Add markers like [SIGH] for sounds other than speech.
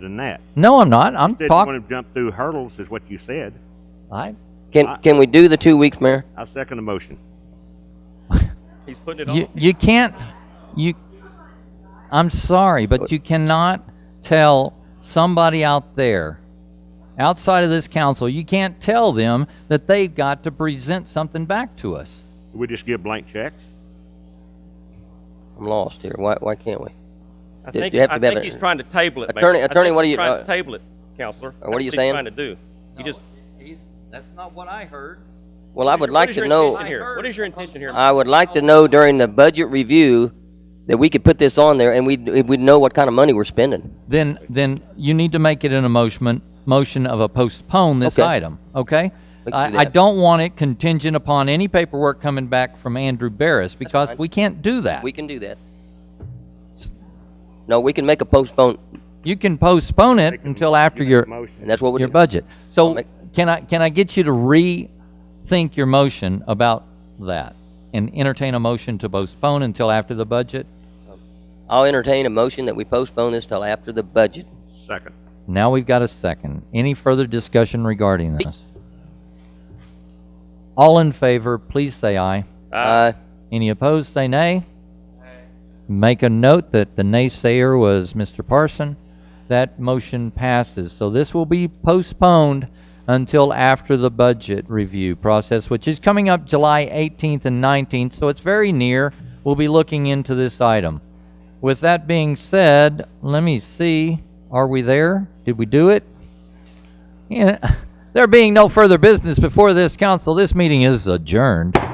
than that. No, I'm not. I'm Said you want talking. to jump through hurdles is what you said. I Can, can we do the two weeks, Mayor? I second the motion. He's putting it on. you, you can't you i'm sorry but you cannot tell somebody out there outside of this council you can't tell them that they've got to present something back to us We just give blank checks. I'm lost here. Why, why can't we? I you think, have to I be able think to- he's trying to table it, Mayor. Attorney- I think attorney, what he's do you- Trying to uh, table it, Counselor. what are That's you he's saying? Trying to do. You just. that's not what i heard Well, I what would is like your to know, intention here? What is your intention here? I would like to know during the budget review that we could put this on there and we'd, we'd know what kind of money we're spending. then then you need to make it an emotion motion of a postpone this Okay. item okay We can do I, I that. don't want it contingent upon any paperwork coming back from andrew barris because we can't do that We can do that. No, we can make a postpone, you can postpone it until after your and that's what we your do. budget. So make- can I, can I get you to rethink your motion about that and entertain a motion to postpone until after the budget? I'll entertain a motion that we postpone this till after the budget. Second. Now we've got a second. Any further discussion regarding this? All in favor, please say aye. Uh, Any opposed, say nay. Make a note that the naysayer was Mr. Parson. That motion passes. So this will be postponed until after the budget review process, which is coming up July 18th and 19th, so it's very near. We'll be looking into this item. With that being said, let me see, are we there? Did we do it? [LAUGHS] Yeah. There being no further business before this council, this meeting is adjourned.